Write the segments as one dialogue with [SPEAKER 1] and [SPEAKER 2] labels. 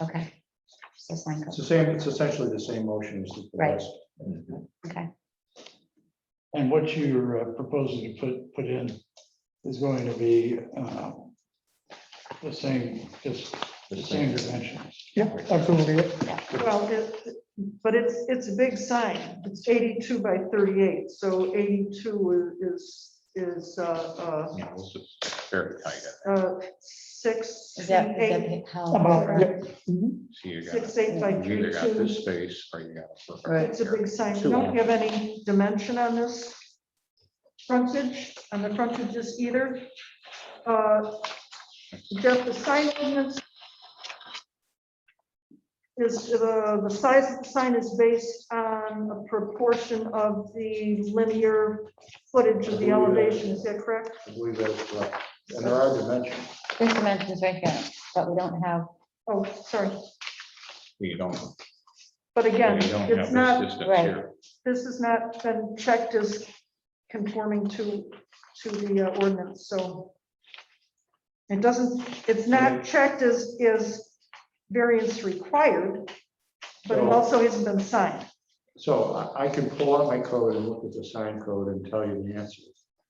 [SPEAKER 1] Okay. So sign
[SPEAKER 2] It's
[SPEAKER 1] code,
[SPEAKER 2] the same, it's essentially the same motion as the
[SPEAKER 1] Right.
[SPEAKER 2] rest.
[SPEAKER 1] okay.
[SPEAKER 3] And what you're uh, proposing to put, put in is going to be uh, the same, just the same dimensions.
[SPEAKER 4] Yeah, uh, absolutely.
[SPEAKER 5] Well, it, but it's, it's a big sign. It's 82 by 38, so 82 is, is, uh, uh,
[SPEAKER 6] Yeah, this is very tight.
[SPEAKER 5] uh, six,
[SPEAKER 1] Is that, is that
[SPEAKER 5] eight, uh,
[SPEAKER 1] the- how?
[SPEAKER 4] About, yeah.
[SPEAKER 6] So you got,
[SPEAKER 5] six, eight by
[SPEAKER 6] you either got
[SPEAKER 5] 32.
[SPEAKER 6] this space or you got. a-
[SPEAKER 5] It's a big sign. You don't have any dimension on this frontage, on the frontages either. Uh, Jeff, the sign ordinance is, uh, the size of the sign is based on a proportion of the linear footage of
[SPEAKER 6] uh,
[SPEAKER 5] the elevation, is that correct?
[SPEAKER 2] I believe that's right. And there are dimensions.
[SPEAKER 1] There's dimensions right here, but we don't have,
[SPEAKER 5] Oh, sorry,
[SPEAKER 6] You don't. you
[SPEAKER 5] but again,
[SPEAKER 6] don't have
[SPEAKER 5] it's
[SPEAKER 6] this
[SPEAKER 5] not
[SPEAKER 6] distance
[SPEAKER 1] Right.
[SPEAKER 6] here.
[SPEAKER 5] this has not been checked as conforming to, to the uh, ordinance, so. It doesn't, it's not checked as, is variance required, but it
[SPEAKER 2] No.
[SPEAKER 5] also hasn't been signed.
[SPEAKER 2] So I, I can pull out my code and look at the sign code and tell you the answer,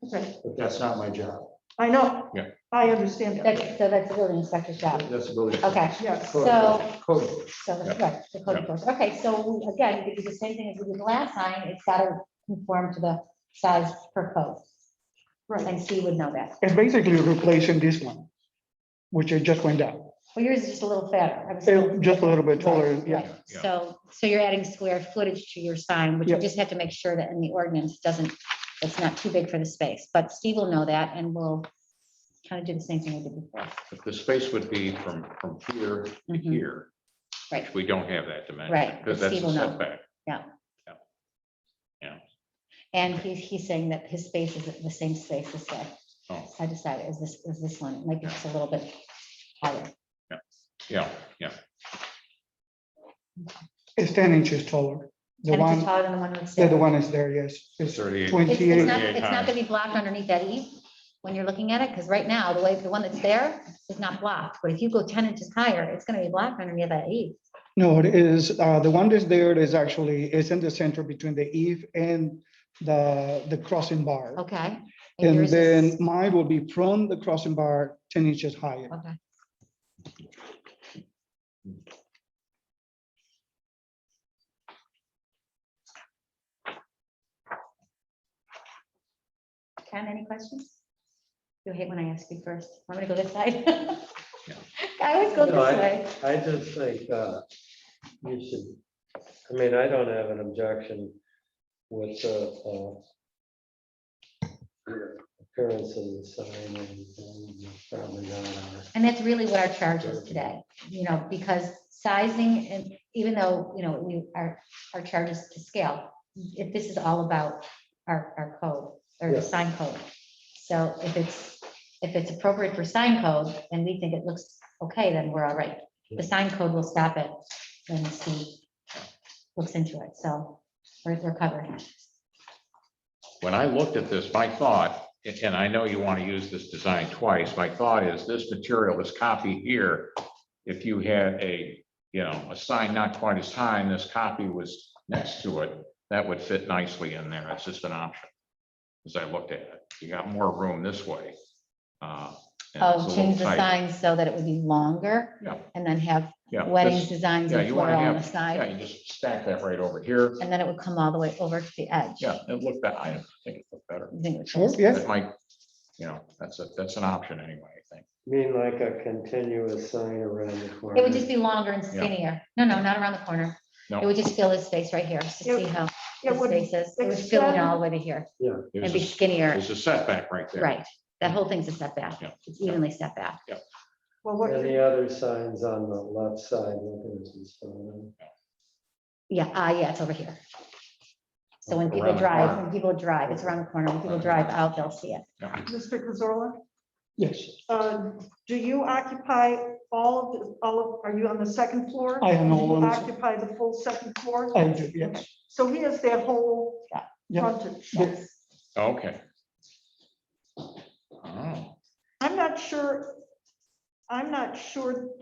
[SPEAKER 5] Okay,
[SPEAKER 2] but that's not my job.
[SPEAKER 5] I know.
[SPEAKER 6] Yeah.
[SPEAKER 5] I understand
[SPEAKER 1] that's,
[SPEAKER 5] that,
[SPEAKER 1] so that's the building inspector's job.
[SPEAKER 2] That's ability.
[SPEAKER 1] Okay,
[SPEAKER 5] yes.
[SPEAKER 2] Code-
[SPEAKER 1] So-
[SPEAKER 2] Code.
[SPEAKER 1] so that's
[SPEAKER 6] Yeah.
[SPEAKER 1] right, the code
[SPEAKER 6] Yeah.
[SPEAKER 1] enforcement. Okay, so we- again, we do the same thing as we did the last sign, it's got to conform to the size per code.
[SPEAKER 5] Right.
[SPEAKER 1] And Steve would know that.
[SPEAKER 4] It's basically replacing this one, which I just went down,
[SPEAKER 1] Well, yours is just a little fatter. I was-
[SPEAKER 4] It- just a little bit taller,
[SPEAKER 1] Right,
[SPEAKER 4] yeah.
[SPEAKER 1] right.
[SPEAKER 6] Yeah.
[SPEAKER 1] So, so you're adding square footage to your sign, which you
[SPEAKER 4] Yeah.
[SPEAKER 1] just have to make sure that in the ordinance doesn't, it's not too big for the space. But Steve will know that and we'll kind of do the same thing we did before.
[SPEAKER 6] But The space would be from, from here to
[SPEAKER 1] Mhm.
[SPEAKER 6] here.
[SPEAKER 1] Right.
[SPEAKER 6] which We don't have that dimension.
[SPEAKER 1] Right,
[SPEAKER 6] Because
[SPEAKER 1] but
[SPEAKER 6] that's
[SPEAKER 1] Steve
[SPEAKER 6] a
[SPEAKER 1] will know.
[SPEAKER 6] setback.
[SPEAKER 1] And he's, he's saying that his space is the same space as that.
[SPEAKER 6] Oh.
[SPEAKER 1] So I decided, is this, is this one, it might be just a little bit higher.
[SPEAKER 6] Yeah, yeah.
[SPEAKER 4] it's ten inches taller. The
[SPEAKER 1] And it's
[SPEAKER 4] one,
[SPEAKER 1] taller than the one that's
[SPEAKER 4] yeah,
[SPEAKER 1] there.
[SPEAKER 4] the one is there, yes. It's
[SPEAKER 6] 38.
[SPEAKER 1] It's, it's
[SPEAKER 4] twenty-eight,
[SPEAKER 1] not, it's not gonna be blocked underneath that eve when you're looking at it, because right now, the way, the one that's there is not blocked. But if you go ten inches higher, it's gonna be blocked underneath that E. eve.
[SPEAKER 4] no, it is, uh, the one that's there is actually, it's in the center between the eve and the, the crossing bar.
[SPEAKER 1] Okay.
[SPEAKER 4] And
[SPEAKER 1] yours is-
[SPEAKER 4] then mine will be from the crossing bar ten inches higher.
[SPEAKER 1] Okay. Ken, any questions? You hate when I ask you first. I'm gonna go this side. I always go this
[SPEAKER 7] No, I-
[SPEAKER 1] way.
[SPEAKER 7] I just think, uh, you should, I mean, I don't have an objection with the, uh, appearance of the sign and and uh, probably not our.
[SPEAKER 1] And that's really what our charge is today, you know, because sizing and even though, you know, we, our, our charge is to scale. If this is all about our, our code or
[SPEAKER 7] Yeah.
[SPEAKER 1] the sign code. So if it's, if it's appropriate for sign code and we think it looks okay, then we're all right. The sign code will stop it when the city looks into it. So we're, we're covered.
[SPEAKER 6] When I looked at this, my thought, and- and I know you want to use this design twice, my thought is this material is copied here. If you had a, you know, a sign not quite as high and this copy was next to it, that would fit nicely in there. It's just an option. As I looked at it, you got more room this way. uh, and it's a
[SPEAKER 1] Oh,
[SPEAKER 6] little
[SPEAKER 1] change the
[SPEAKER 6] tighter.
[SPEAKER 1] signs so that it would be longer.
[SPEAKER 6] Yeah.
[SPEAKER 1] And then have
[SPEAKER 6] Yeah,
[SPEAKER 1] weddings
[SPEAKER 6] this-
[SPEAKER 1] designs
[SPEAKER 6] yeah,
[SPEAKER 1] and
[SPEAKER 6] you wanna
[SPEAKER 1] floral on the
[SPEAKER 6] have-
[SPEAKER 1] side.
[SPEAKER 6] Yeah, you just stack that right over here.
[SPEAKER 1] And then it would come all the way over to the edge.
[SPEAKER 6] Yeah, it looked, be- I think it looked better.
[SPEAKER 1] I think it
[SPEAKER 4] Sure,
[SPEAKER 1] was-
[SPEAKER 4] yes,
[SPEAKER 6] That might, you know, that's a, that's an option anyway, I think.
[SPEAKER 7] I Mean like a continuous sign around the corner.
[SPEAKER 1] It would just be longer and skinnier. No, no, not around the corner.
[SPEAKER 6] No.
[SPEAKER 1] It would just fill this space right here, just to see how
[SPEAKER 5] It
[SPEAKER 1] the
[SPEAKER 5] would,
[SPEAKER 1] space is. It would fill in
[SPEAKER 5] extend-
[SPEAKER 1] all the way to here and
[SPEAKER 6] There's
[SPEAKER 1] be
[SPEAKER 6] a-
[SPEAKER 1] skinnier,
[SPEAKER 6] there's a setback right there.
[SPEAKER 1] right? That whole thing's a setback.
[SPEAKER 6] Yeah.
[SPEAKER 1] It's evenly set back.
[SPEAKER 5] well, what
[SPEAKER 7] And
[SPEAKER 5] you're
[SPEAKER 7] the other signs on the left side looking at this sign.
[SPEAKER 1] Yeah, ah, yeah, it's over here. So when people
[SPEAKER 6] Around the
[SPEAKER 1] drive,
[SPEAKER 6] corner.
[SPEAKER 1] when people drive, it's around the corner. When people drive out, they'll see it.
[SPEAKER 5] Mr. Cazorla,
[SPEAKER 4] yes,
[SPEAKER 5] uh, do you occupy all, of the- all, of? are you on the second floor?
[SPEAKER 4] I am
[SPEAKER 5] Do
[SPEAKER 4] all
[SPEAKER 5] you
[SPEAKER 4] on the-
[SPEAKER 5] Occupy the full second floor?
[SPEAKER 4] I do, yes.
[SPEAKER 5] So he has that whole
[SPEAKER 1] Yeah.
[SPEAKER 4] Yeah.
[SPEAKER 5] frontage.
[SPEAKER 4] Yes.
[SPEAKER 6] Okay. Oh,
[SPEAKER 5] I'm not sure, I'm not sure